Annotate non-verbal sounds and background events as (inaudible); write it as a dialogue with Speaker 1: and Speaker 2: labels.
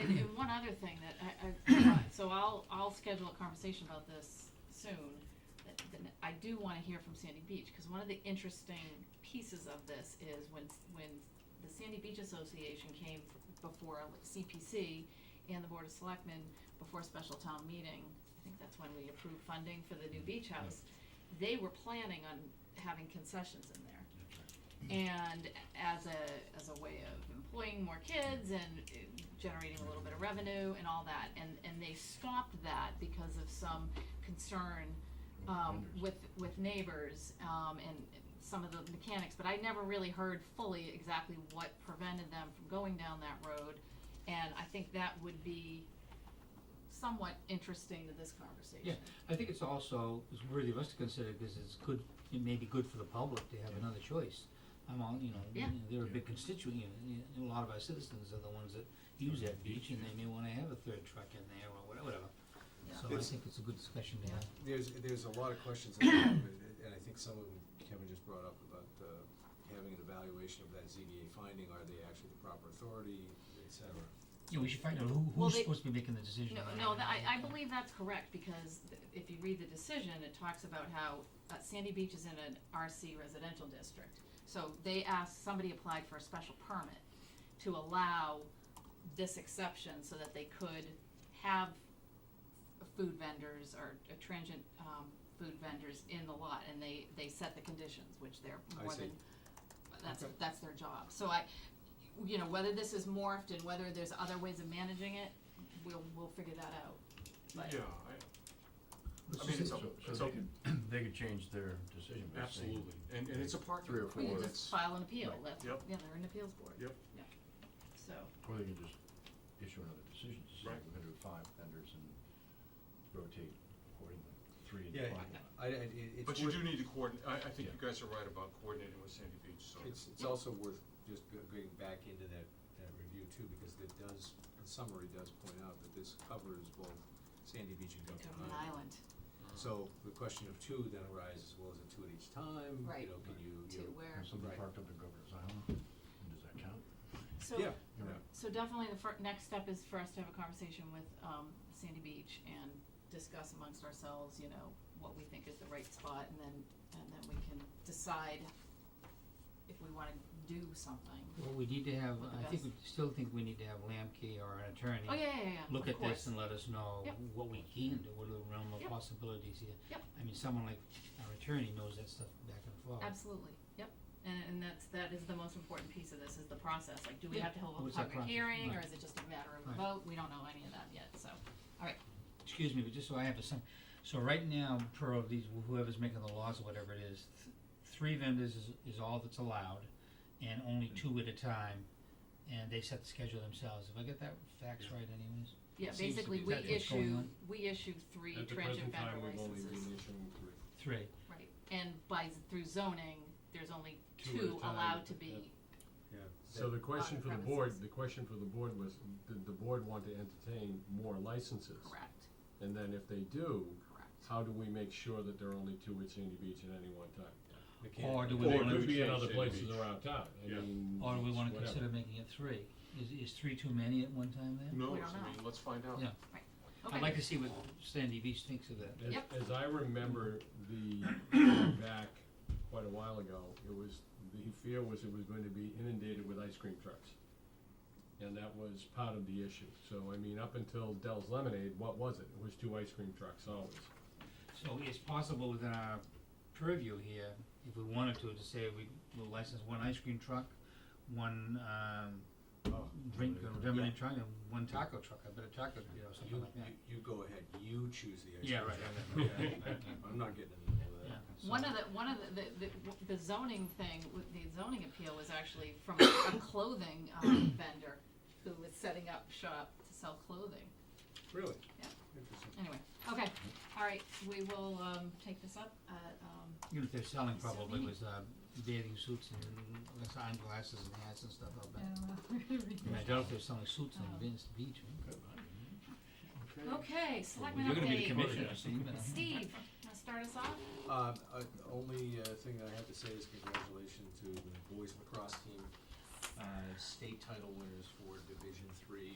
Speaker 1: other thing that I, (coughs) I, want. so I'll, I'll schedule a conversation about this soon. That- that I do wanna hear from Sandy Beach, cause one of the interesting pieces of this is when, when the Sandy Beach Association came f- before CPC and the Board of Selectmen before special town meeting, I think that's when we approved funding for the new beach house. They were planning on having concessions in there and as a as a way of employing more kids and uh, generating a little bit of revenue and all that and and they stopped that because of some concern um, with with neighbors um, and some of the mechanics but I never really heard fully exactly what prevented them from going down that road and I think that would be somewhat interesting to this conversation
Speaker 2: I think it's also, it's worthy of us to consider, because it's good, it may be good for the public to have another choice. I'm all, you know, you
Speaker 1: Yeah.
Speaker 2: know, they're a big constituent, you know, you know, a lot of our citizens are the ones that use that beach, and they may wanna have a third truck in there, or whatever, whatever.
Speaker 1: Yeah.
Speaker 2: So I
Speaker 3: It's-
Speaker 2: think it's a good discussion to
Speaker 1: Yeah.
Speaker 2: have.
Speaker 3: There's, there's a lot of questions in there, but- and I think some of them Kevin just brought up about uh, having an evaluation of that ZBA finding, are they actually the proper authority, et cetera.
Speaker 2: Yeah, we should find out who,
Speaker 1: Well,
Speaker 2: who's
Speaker 1: they-
Speaker 2: supposed to be making the decision.
Speaker 1: No,
Speaker 2: on
Speaker 1: no,
Speaker 2: that.
Speaker 1: tha- I, I believe that's correct, because th- if you read the decision, it talks about how uh, Sandy Beach is in an RC residential district. So they asked, somebody applied for a special permit to allow this exception so that they could have f- food vendors or uh, transient, um, food vendors in the lot, and they, they set the conditions, which they're
Speaker 3: I
Speaker 1: more
Speaker 3: see.
Speaker 1: than, that's,
Speaker 3: Okay.
Speaker 1: that's their job. So I, you know, whether this is morphed and whether there's other ways of managing it, we'll, we'll figure that out. But-
Speaker 4: Yeah,
Speaker 2: Let's
Speaker 4: I mean,
Speaker 2: just-
Speaker 4: it's
Speaker 5: So,
Speaker 4: open,
Speaker 5: so
Speaker 4: it's
Speaker 5: they
Speaker 4: open,
Speaker 5: could, they could change their decision
Speaker 4: I,
Speaker 5: by saying,
Speaker 4: absolutely, and, and it's a park.
Speaker 5: Three or
Speaker 1: We
Speaker 5: Well,
Speaker 1: can
Speaker 5: four.
Speaker 1: just
Speaker 5: it's-
Speaker 1: file an appeal, that's, yeah,
Speaker 4: Yep.
Speaker 1: they're an appeals board.
Speaker 4: Yep.
Speaker 1: Yeah, so,
Speaker 5: or they could just issue another decision, to say
Speaker 4: Right.
Speaker 5: we're gonna do five vendors and rotate accordingly, three and
Speaker 3: Yeah,
Speaker 5: five.
Speaker 3: I, I, it- it's
Speaker 4: But you
Speaker 3: worth-
Speaker 4: do need to coordinate, I, I think you
Speaker 5: Yeah.
Speaker 4: guys are right about coordinating with Sandy Beach, so.
Speaker 3: It's, it's also worth just go- going back into that, that review too, because it does, the summary does point out that this covers both Sandy Beach and
Speaker 1: Government
Speaker 3: Government Island.
Speaker 1: Island,
Speaker 4: uh,
Speaker 3: So the question of two then arises, well, is it two at each time?
Speaker 1: Right.
Speaker 3: You know, can you,
Speaker 1: to
Speaker 3: you know,
Speaker 1: where,
Speaker 5: If somebody
Speaker 3: Right.
Speaker 5: parked up in Governor's Island, and does that count?
Speaker 1: so,
Speaker 3: Yeah,
Speaker 5: You're
Speaker 3: yeah.
Speaker 5: right.
Speaker 1: so definitely the fir- next step is for us to have a conversation with, um, Sandy Beach and discuss amongst ourselves, you know, what we think is the right spot, and then, and then we can decide if we wanna do something.
Speaker 2: Well, we need to have,
Speaker 1: With the
Speaker 2: I think, we
Speaker 1: best.
Speaker 2: still think we need to have Lamkey or an attorney.
Speaker 1: Oh, yeah, yeah, yeah,
Speaker 2: look
Speaker 1: of
Speaker 2: at this
Speaker 1: course.
Speaker 2: and let us know
Speaker 1: Yep.
Speaker 2: what we can do, what are the realm of
Speaker 1: Yep.
Speaker 2: possibilities here.
Speaker 1: Yep.
Speaker 2: I mean, someone like our attorney knows that stuff back and forth.
Speaker 1: Absolutely, yep, and, and that's, that is the most important piece of this, is the process, like, do we
Speaker 2: Yeah.
Speaker 1: have to hold
Speaker 2: What's
Speaker 1: a
Speaker 2: that
Speaker 1: public
Speaker 2: process?
Speaker 1: hearing, or
Speaker 2: Right.
Speaker 1: is it just a matter of a
Speaker 2: Right.
Speaker 1: vote, we don't know any of that yet, so, alright,
Speaker 2: Excuse me, but just so I have a sum, so right now, per of these, whoever's making the laws or whatever it is, th- three vendors is, is all that's allowed, and only
Speaker 6: Mm.
Speaker 2: two at a time, and they set the schedule themselves, have I got that facts right anyways?
Speaker 1: yeah,
Speaker 2: Seems to
Speaker 1: basically,
Speaker 2: be
Speaker 1: we
Speaker 2: that's what's going
Speaker 1: issue,
Speaker 2: on.
Speaker 1: we issue three transient vendor licenses.
Speaker 2: Three,
Speaker 1: Right, and by, through zoning, there's only
Speaker 6: Two at a
Speaker 1: two
Speaker 6: time,
Speaker 1: allowed to be,
Speaker 3: Yeah.
Speaker 6: So the question for the board,
Speaker 1: premises.
Speaker 6: the question for the board was, did the board want to entertain more licenses?
Speaker 1: correct,
Speaker 6: And then if they do,
Speaker 1: correct,
Speaker 6: how do we make sure that there are only two at Sandy Beach at any one time?
Speaker 3: We
Speaker 2: Or
Speaker 3: can't-
Speaker 2: do we
Speaker 6: Or
Speaker 2: wanna-
Speaker 6: it could be in
Speaker 4: Change
Speaker 6: other
Speaker 4: Sandy
Speaker 6: places
Speaker 4: Beach.
Speaker 6: around town, I
Speaker 4: Yeah.
Speaker 6: mean,
Speaker 2: or do we wanna
Speaker 6: whatever.
Speaker 2: consider making it three, is, is three too many at one time then?
Speaker 4: Who knows,
Speaker 1: We don't
Speaker 4: I
Speaker 1: know.
Speaker 4: mean, let's find out.
Speaker 2: Yeah.
Speaker 1: okay.
Speaker 2: I'd like to see what Sandy Beach thinks of that.
Speaker 6: As,
Speaker 1: Yep.
Speaker 6: as I remember the, back quite a while ago, it was, the fear was it was going to be inundated with ice cream trucks. And that was part of the issue, so I mean, up until Dell's Lemonade, what was it? It was two ice cream trucks always.
Speaker 2: So it's possible within our purview here, if we wanted to, to say we will license one ice cream truck, one um drink or feminine truck, and one taco truck, I bet a taco, you know, something
Speaker 3: You,
Speaker 2: like that.
Speaker 3: you, you go ahead, you choose the ice
Speaker 2: Yeah,
Speaker 3: cream
Speaker 2: right,
Speaker 3: truck. I'm not getting into
Speaker 2: (laughs)
Speaker 3: that.
Speaker 2: Yeah, so-
Speaker 1: One of the, one of the, the, the zoning thing, with the zoning appeal was actually from a (coughs) clothing um, (coughs) vendor who was setting up shop to sell clothing.
Speaker 3: Really?
Speaker 1: Yeah.
Speaker 3: Interesting.
Speaker 1: Anyway, okay, all right, we will, um, take this up at, um,
Speaker 2: Even if they're selling
Speaker 1: So
Speaker 2: probably
Speaker 1: we-
Speaker 2: with uh bathing suits and sign glasses and hats and stuff, I'll bet. And I
Speaker 1: uh,
Speaker 2: doubt if they're selling suits on
Speaker 1: Oh.
Speaker 2: Venice Beach, right?
Speaker 1: (laughs) okay, selectmen
Speaker 2: You're gonna be the
Speaker 1: update.
Speaker 2: commissioner, so you better-
Speaker 1: Steve, wanna start us off?
Speaker 3: Uh, uh, only uh, thing I have to say is congratulations to the boys lacrosse team, uh, state title winners for Division Three